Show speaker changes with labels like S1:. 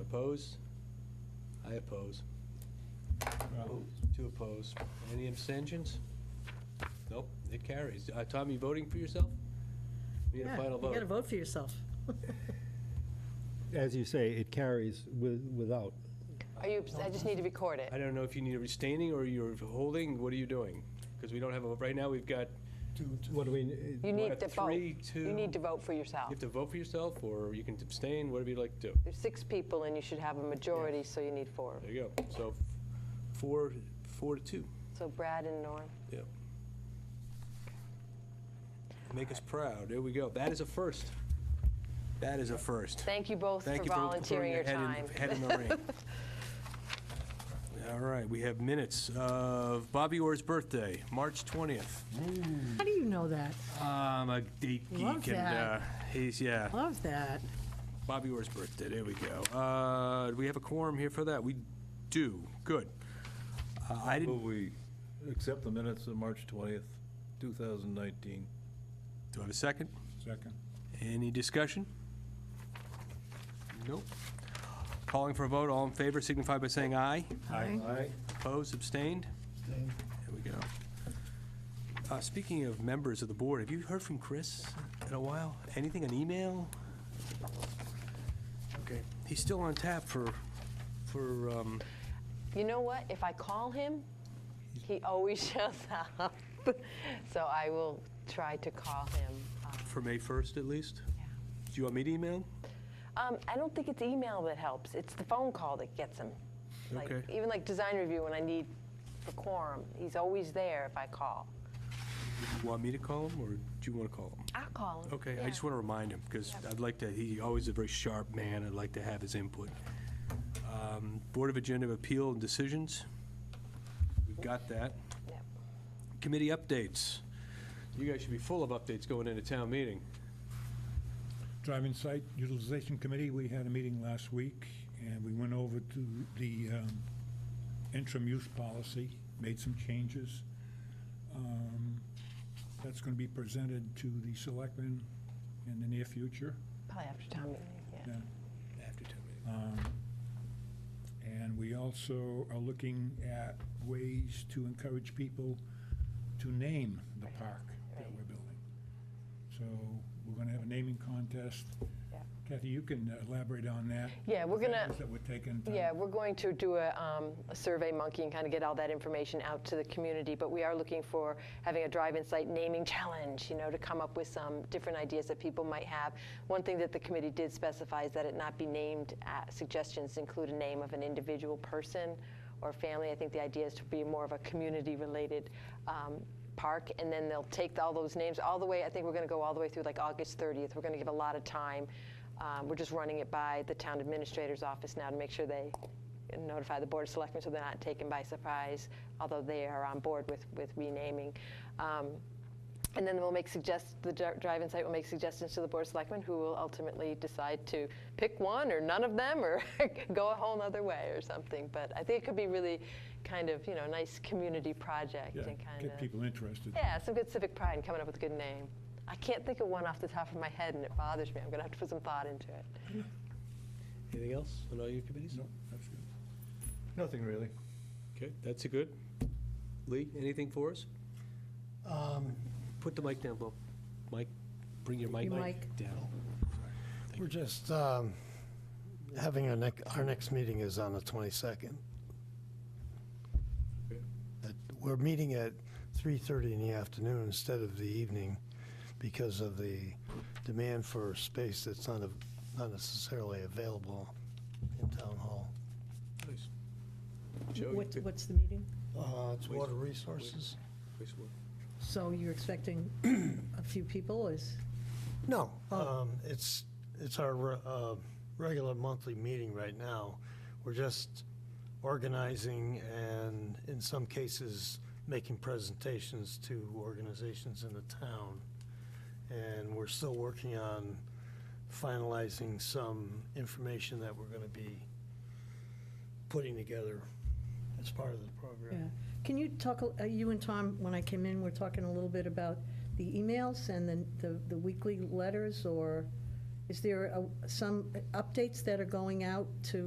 S1: oppose? I oppose. Two oppose. Any abstentions? Nope, it carries. Uh, Tom, you voting for yourself? We need a
S2: Yeah,
S1: final
S2: You gotta
S1: vote.
S2: vote for yourself.
S3: As you say, it carries with, without.
S4: Are you, I just need to record
S1: I
S4: it.
S1: don't know if you need a abstaining or you're holding, what are you doing? Because we don't have, a right now, we've got,
S3: What do we,
S4: You
S1: We're
S4: need
S1: at
S4: to vote.
S1: three,
S4: You need
S1: two-
S4: to vote for
S1: you
S4: yourself.
S1: have to vote for yourself, or you can abstain, whatever you'd like to do.
S4: There's six people and you should have a majority, so you need four.
S1: There you go. So four, four to two.
S4: So Brad and Norm.
S1: Yep. Make us proud. There we go. That is a first. That is a first.
S4: Thank you both for
S1: Thank you for
S4: volunteering your
S1: throwing
S4: time.
S1: head in- Head in the ring. All right, we have minutes of Bobby Orr's birthday, March 20th.
S2: How do you know that?
S1: Um, a date geek.
S2: Love
S1: And, uh,
S2: that.
S1: he's, yeah,
S2: Love that.
S1: Bobby Orr's birthday. There we go. Uh, do we have a quorum here for that? We do. Good. Uh, I didn't,
S5: Will we accept the minutes of March 20th, 2019?
S1: do I have a second?
S5: Second.
S1: Any discussion? Nope. Calling for a vote, all in favor signify by saying aye.
S2: Aye.
S5: Aye.
S1: Opposed, abstained? There we go. Uh, Speaking of members of the board, have you heard from Chris in a while? Anything, an email? Okay, he's still on tap for, for, um,
S4: You know what? If I call him, he always shows up. So I will try to call him. Uh,
S1: for May 1st at least? Do you want me to email? him?
S4: Um, I don't think it's email that helps. It's the phone call that gets him. Like,
S1: Okay.
S4: Even like design review when I need for quorum, he's always there if I call.
S1: You Want me to call him, or do you want to call him?
S4: I'll call him.
S1: Okay, I
S4: Yeah.
S1: just want to remind him, because I'd like to, he always a very sharp man, I'd like to have his input. Um, Board of Agenda of Appeal and Decisions, we've got that.
S4: Yep.
S1: Committee updates, you guys should be full of updates going into town meeting.
S6: Driving Site Utilization Committee, we had a meeting last week, and we went over to the um, interim use policy, made some changes. Um, That's going to be presented to the selectmen in the near future.
S4: Probably after town meeting, yeah.
S6: Yeah.
S1: After town meeting.
S6: Um, And we also are looking at ways to encourage people to name the park that we're building. So we're gonna have a naming contest.
S4: Yeah.
S6: Kathy, you can elaborate on that.
S4: Yeah, we're
S6: the
S4: gonna-
S6: measures That we're taking. to-
S4: Yeah, we're going to do a, um, a survey monkey and kind of get all that information out to the community, but we are looking for having a drive-in site naming challenge, you know, to come up with some different ideas that people might have. One thing that the committee did specify is that it not be named, uh, suggestions include a name of an individual person or family. I think the idea is to be more of a community-related, um, park, and then they'll take all those names all the way. I think we're going to go all the way through like August 30th. We're going to give a lot of time. Um, we're just running it by the town administrator's office now to make sure they notify the board of selectmen so they're not taken by surprise. Although they are on board with with renaming. Um, and then we'll make suggest, the dri- drive-in site will make suggestions to the board of selectmen, who will ultimately decide to pick one or none of them, or go a whole nother way or something. But I think it could be really kind of, you know, nice community project
S6: Yeah,
S4: and kind
S6: Get
S4: of.
S6: people interested.
S4: Yeah, some good civic pride in coming up with a good name. I can't think of one off the top of my head, and it bothers me. I'm going to have to put some thought into it.
S1: Anything else on all your committees?
S6: No, that's good.
S5: Nothing really.
S1: Okay, that's a good. Lee, anything for us? Put the mic down, Bill. Mike, bring your mic
S2: Your
S1: down.
S2: mic.
S7: We're just um, having our next, our next meeting is on the 22nd.
S1: Okay.
S7: At- We're meeting at 3:30 in the afternoon instead of the evening because of the demand for space that's not, av- not necessarily available in Town Hall.
S1: Nice. Joe, you
S2: What's,
S1: pick-
S2: what's the meeting?
S7: Uh, It's
S1: Waste-
S7: water resources?
S1: please, what-
S2: So you're expecting a few people is,
S7: No, um, it's, it's our re- uh, regular monthly meeting right now. We're just organizing and in some cases, making presentations to organizations in the town. And we're still working on finalizing some information that we're gonna be putting together as part of the
S2: yeah.
S7: program.
S2: Can you talk, a- uh, you and Tom, when I came in, we're talking a little bit about the emails and then the, the weekly letters, or is there a- some updates that are going out to